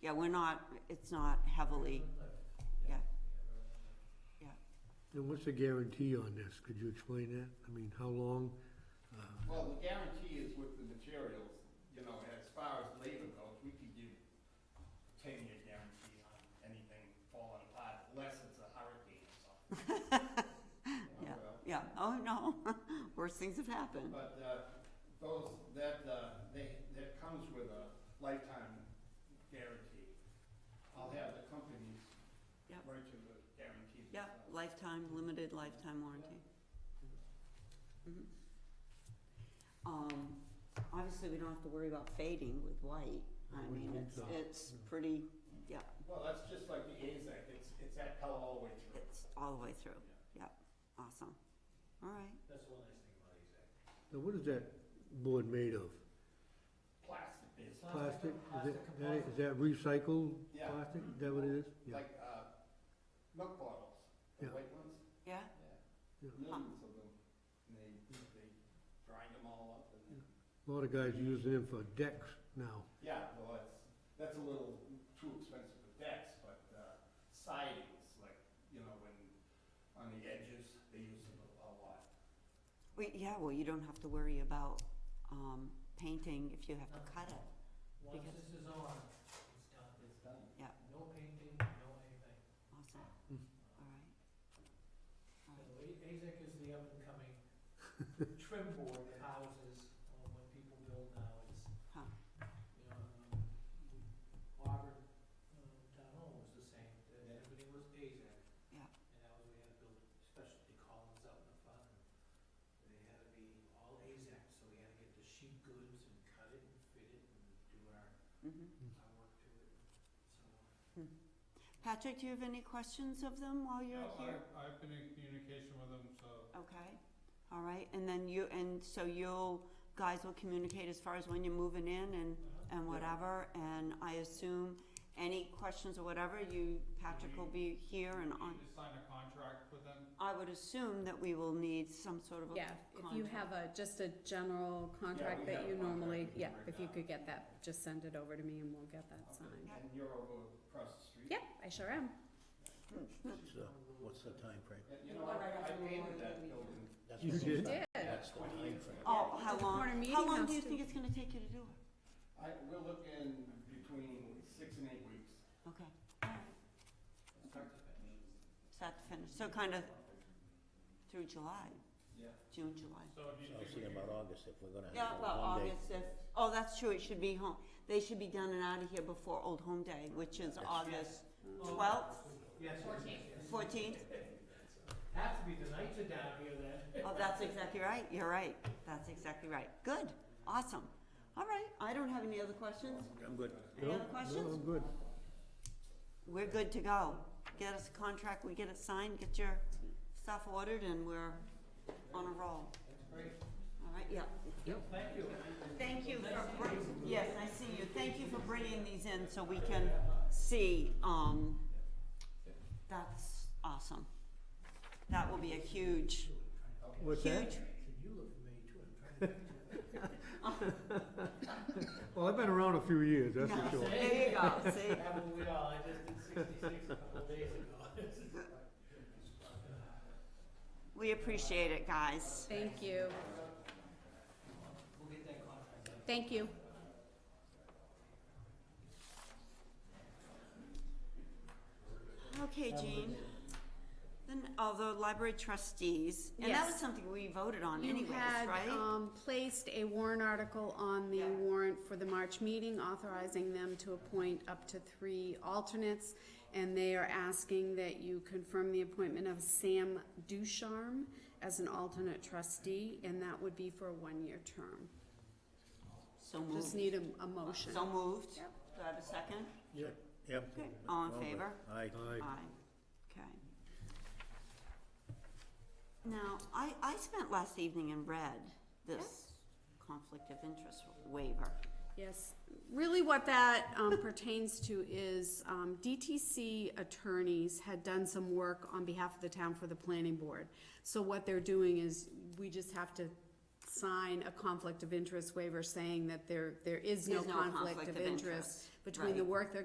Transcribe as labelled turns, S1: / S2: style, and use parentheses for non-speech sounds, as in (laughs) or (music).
S1: yeah, we're not, it's not heavily, yeah. Yeah.
S2: And what's the guarantee on this? Could you explain that? I mean, how long? Uh,
S3: Well, the guarantee is with the materials, you know, as far as labor goes, we could give ten-year guarantee on anything falling apart, unless it's a hurricane or something. You know,
S1: (laughs) Yeah.
S3: well,
S1: Yeah, oh, no, (laughs) worse things have happened.
S3: But, uh, those, that, uh, they, that comes with a lifetime guarantee. I'll have the companies
S1: Yep.
S3: write you the guarantee.
S1: Yeah,
S3: themselves.
S1: lifetime, limited lifetime warranty. Mhm. Um, obviously, we don't have to worry about fading with white.
S2: I
S1: I
S2: wouldn't
S1: mean,
S2: think
S1: it's,
S2: so.
S1: it's pretty, yeah,
S3: Well, that's just like the AZAC, it's, it's that color all the way through.
S1: it's all the way through. Yep, awesome. All right.
S3: That's one nice thing about AZAC.
S2: Now, what is that board made of?
S3: Plastic is,
S2: Plastic? Is that- that, is that recycled
S3: Yeah.
S2: plastic? Is that what it is? Yeah.
S3: like, uh, milk bottles, the
S2: Yeah.
S3: white ones,
S1: Yeah,
S3: yeah,
S2: Yeah.
S3: millions of them. And they, they grind them all up and then,
S2: A lot of guys using them for decks now.
S3: yeah, well, that's, that's a little too expensive for decks, but, uh, sidings, like, you know, when, on the edges, they use them a a lot.
S1: we, yeah, well, you don't have to worry about, um, painting if you have to cut it.
S4: Once
S1: Because-
S4: this is on, it's done,
S3: It's done.
S4: no painting, no anything.
S1: Awesome,
S2: Mm.
S1: all right. All
S4: So
S1: right.
S4: A- AZAC is the up and coming (laughs) trim board that houses, uh, what people build now, it's,
S1: Huh.
S4: you know, um, Auburn, um, town hall was the same, that
S3: Yeah.
S4: everything was AZAC.
S1: Yeah.
S4: And that was, we had to build specialty columns out in the front, and they had to be all AZAC, so we had to get the sheet goods and cut it and fit it and do our,
S1: Mhm.
S4: our work to it, so.
S1: Patrick, do you have any questions of them while you're
S5: No,
S1: here?
S5: I- I've been in communication with them, so
S1: Okay, all right, and then you, and so you'll, guys will communicate as far as when you're moving in and, and whatever, and I assume any questions or whatever, you, Patrick will be here and on.
S5: you sign a contract with them.
S1: I would assume that we will need some sort of a
S6: Yeah, if you have a, just a general contract
S3: have
S6: that
S3: a
S6: you
S3: contract we
S6: normally,
S3: can
S6: yeah,
S3: break
S6: if you
S3: down.
S6: could get that, just send it over to me and we'll get that signed.
S3: And you're over across the street.
S6: Yep, I sure am.
S7: So, what's the time frame?
S3: Yeah, You know, I, I painted that building.
S7: That's
S2: You
S7: what-
S2: did?
S6: Did,
S7: That's the time frame.
S1: Oh, how
S6: It's a corner
S1: long,
S6: meeting
S1: how long do
S6: house
S1: you
S6: too.
S1: think it's gonna take you to do it?
S3: I, we're looking between six and eight weeks.
S1: Okay, all right, start to finish, so kind of through July,
S3: Yeah.
S1: June, July.
S5: So do you
S7: So I was
S5: think we
S7: thinking about
S5: could,
S7: August, if we're gonna
S1: Yeah,
S7: have
S1: well,
S7: one day.
S1: August if, oh, that's true, it should be home, they should be done and out of here before Old Home Day, which is August twelfth,
S4: Yes, yes, yes, yes.
S1: fourteenth?
S4: Have to be, the nights are down here then.
S1: Oh, that's exactly right, you're right, that's exactly right, good, awesome. All right, I don't have any other questions,
S7: I'm good.
S1: any other
S2: No? No,
S1: questions?
S2: I'm good.
S1: We're good to go, get us a contract, we get it signed, get your stuff ordered, and we're on a roll. All right, yeah.
S4: Thank you.
S1: Thank you for, br- yes, I see you. Thank you for bringing these in so we can see, um, that's awesome. That will be a huge,
S2: What's that?
S1: huge,
S4: You look familiar too, I'm trying to. (laughs)
S2: Well, I've been around a few years, that's for
S1: no,
S2: sure.
S1: (laughs) there you go, see?
S4: Haven't we all, I just did sixty-six a couple days ago. (laughs)
S1: We appreciate it, guys.
S6: thank you.
S4: We'll get that contract.
S6: Thank you.
S1: Okay, Jean. Then, oh, the library trustees, and that was
S6: Yes.
S1: something we voted on
S6: You
S1: anyways,
S6: had,
S1: right?
S6: um, placed a warrant article on the
S1: Yeah.
S6: warrant for the March meeting authorizing them to appoint up to three alternates. And they are asking that you confirm the appointment of Sam Ducharme as an alternate trustee, and that would be for a one-year term.
S1: So
S6: Just
S1: moved.
S6: need a, a motion.
S1: So moved. Do
S6: Yep.
S1: I have a second?
S2: Yeah.
S7: Yep.
S1: Okay. All in
S7: Well, but
S1: favor?
S7: Aye.
S2: Aye.
S1: Okay. Now, I, I spent last evening and read this conflict of interest waiver.
S6: Yes, really what that um, pertains to is um, DTC attorneys had done some work on behalf of the town for the planning board. So what they're doing is, we just have to sign a conflict of interest waiver saying that there, there is no
S1: There's
S6: conflict of interest between the
S1: right.
S6: work they're